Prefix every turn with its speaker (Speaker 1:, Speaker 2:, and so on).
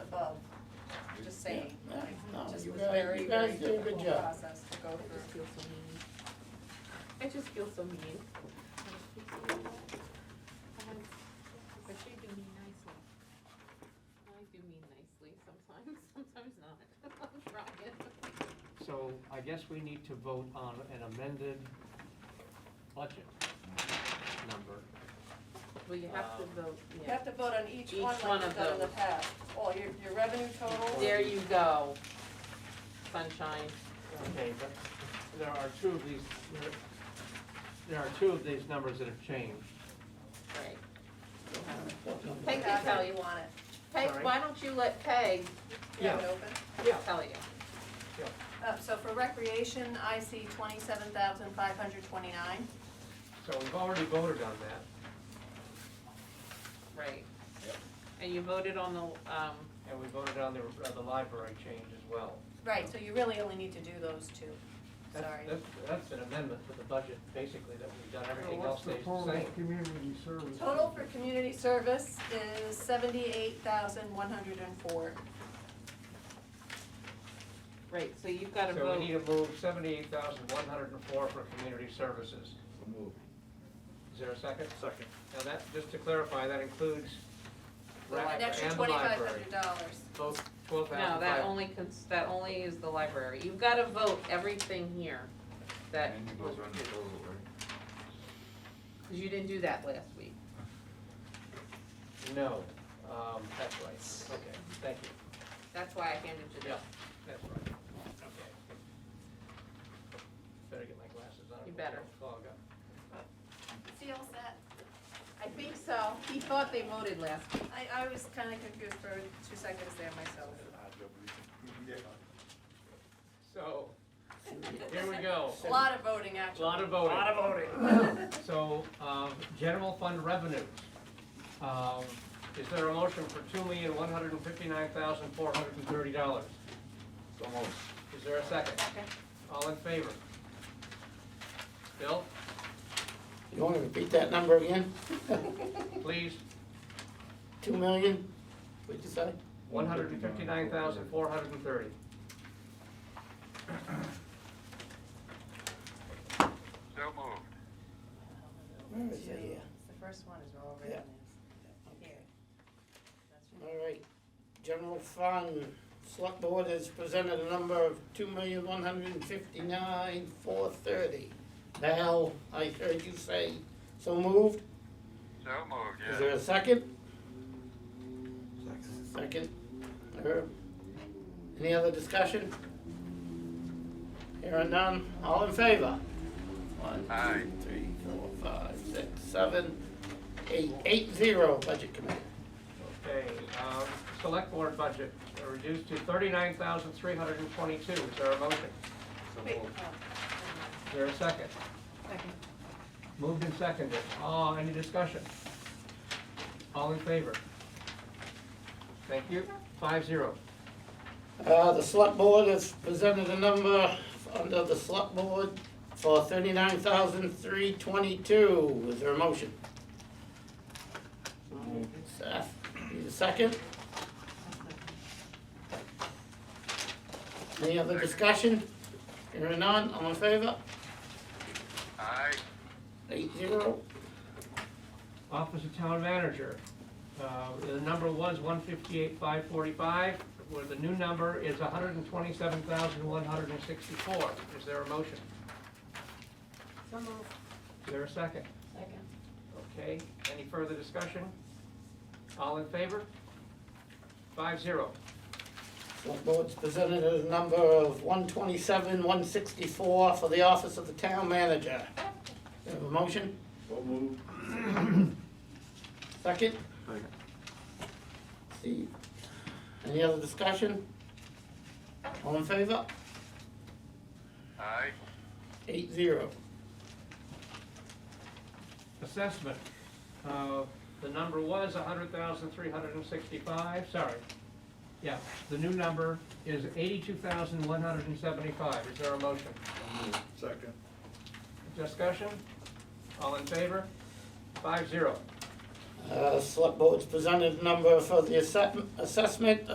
Speaker 1: I-
Speaker 2: very,
Speaker 1: you
Speaker 2: very
Speaker 1: guys do a good
Speaker 2: difficult
Speaker 1: job.
Speaker 2: process to go
Speaker 3: I just
Speaker 2: through.
Speaker 3: feel so mean. I just feel so mean. But you do mean nicely. I do mean nicely sometimes, sometimes not. I'm trying.
Speaker 4: So I guess we need to vote on an amended budget number.
Speaker 3: Well, you have to
Speaker 4: Um,
Speaker 3: vote,
Speaker 2: You
Speaker 3: yeah.
Speaker 2: have to vote on each
Speaker 3: Each
Speaker 2: one
Speaker 3: one
Speaker 2: like you've
Speaker 3: of
Speaker 2: done in the
Speaker 3: those.
Speaker 2: past. All your, your revenue totals.
Speaker 3: There you go. Sunshine.
Speaker 4: Okay, but there are two of these, there- there are two of these numbers that have changed.
Speaker 3: Right.
Speaker 2: Peg
Speaker 3: Peg can tell you.
Speaker 2: want it.
Speaker 3: Peg,
Speaker 4: Sorry?
Speaker 3: why don't you let Peg
Speaker 2: You have it open?
Speaker 4: Yeah.
Speaker 3: tell you?
Speaker 2: Uh, so for recreation, I see twenty-seven thousand five hundred twenty-nine.
Speaker 4: So we've already voted on that.
Speaker 3: Right.
Speaker 1: Yep.
Speaker 3: And you voted on the, um,
Speaker 4: And we voted on the, uh, the library change as well.
Speaker 2: Right, so you really only need to do those two.
Speaker 4: That's-
Speaker 2: Sorry.
Speaker 4: That's, that's an amendment to the budget, basically, that we've done, everything
Speaker 5: So
Speaker 4: else
Speaker 5: what's the
Speaker 4: stays the
Speaker 5: total
Speaker 4: same.
Speaker 5: community service?
Speaker 2: Total for community service is seventy-eight thousand one hundred and four.
Speaker 3: right, so you've got to
Speaker 4: So we need
Speaker 3: vote.
Speaker 4: to move seventy-eight thousand one hundred and four for community services.
Speaker 1: Move.
Speaker 4: Is there a second? Second. Now that, just to clarify, that includes rec
Speaker 2: An extra
Speaker 4: and
Speaker 2: twenty-five
Speaker 4: library,
Speaker 2: hundred dollars.
Speaker 4: both twelve
Speaker 3: No,
Speaker 4: thousand
Speaker 3: that
Speaker 4: five.
Speaker 3: only, cons- that only is the library. You've got to vote everything here that
Speaker 1: And you
Speaker 3: was
Speaker 1: goes around the
Speaker 3: reduced.
Speaker 1: total, right?
Speaker 3: Because you didn't do that last week.
Speaker 4: No, um, that's right, okay, thank you,
Speaker 3: That's why I handed you
Speaker 4: Yeah.
Speaker 3: this.
Speaker 4: that's right, okay. Better get my glasses on.
Speaker 3: You better.
Speaker 4: Clog up.
Speaker 2: See all set?
Speaker 3: I think so. He thought they voted last week.
Speaker 2: I, I was kinda confused for two seconds there myself.
Speaker 4: So, here we go.
Speaker 2: A lot of voting actually.
Speaker 4: Lot of voting.
Speaker 5: Lot of voting.
Speaker 4: So, um, general fund revenues. Um, Is there a motion for two million, one hundred and fifty-nine thousand, four hundred and thirty dollars?
Speaker 1: So moved.
Speaker 4: Is there a second?
Speaker 2: Second.
Speaker 4: All in favor? Bill,
Speaker 6: You wanna repeat that number again?
Speaker 4: please,
Speaker 6: Two million, what'd you say?
Speaker 4: one hundred and fifty-nine thousand, four hundred and thirty.
Speaker 7: So moved.
Speaker 6: Where is it?
Speaker 2: See,
Speaker 6: Yeah.
Speaker 2: The first one is all
Speaker 6: Yeah.
Speaker 2: written in. Here. That's right.
Speaker 6: All right, general fund, select board has presented a number of two million, one hundred and fifty-nine, four thirty. Now, I heard you say, so moved,
Speaker 7: So moved,
Speaker 6: is
Speaker 7: yes.
Speaker 6: there a second? Second, Herb, any other discussion? Here are none, all in favor? One,
Speaker 7: Aye.
Speaker 6: two, three, four, five, six, seven, eight, eight, zero, budget committee.
Speaker 4: Okay, um, select board budget uh, reduced to thirty-nine thousand, three hundred and twenty-two. Is there a motion?
Speaker 2: Wait,
Speaker 4: Is there a second?
Speaker 3: Second.
Speaker 4: Moved and seconded. Oh, any discussion? All in favor? Thank you. Five zero.
Speaker 6: Uh, the select board has presented a number under the select board for thirty-nine thousand three twenty-two. Is there a motion? Seth, need a second? Any other discussion? Hearing none, all in favor?
Speaker 7: Aye.
Speaker 6: Eight zero.
Speaker 4: Office of Town Manager. Uh, The number was one fifty-eight, five forty-five, where the new number is hundred and twenty-seven thousand, one hundred and sixty-four. Is there a motion?
Speaker 3: So moved.
Speaker 4: Is there a second?
Speaker 3: Second.
Speaker 4: Okay, any further discussion? All in favor? Five zero.
Speaker 6: Select board's presented a number of one twenty-seven, one sixty-four for the office of the town manager. Do you have a motion?
Speaker 1: So moved.
Speaker 6: Second? Steve. Any other discussion? All in favor?
Speaker 7: Aye.
Speaker 6: Eight zero.
Speaker 4: assessment. Uh, The number was hundred thousand three hundred and sixty-five, sorry. Yeah, the new number is eighty-two thousand one hundred and seventy-five. Is there a motion?
Speaker 1: Second.
Speaker 4: Discussion? All in favor? Five zero.
Speaker 6: Uh, select board's presented number for the assessment, assessment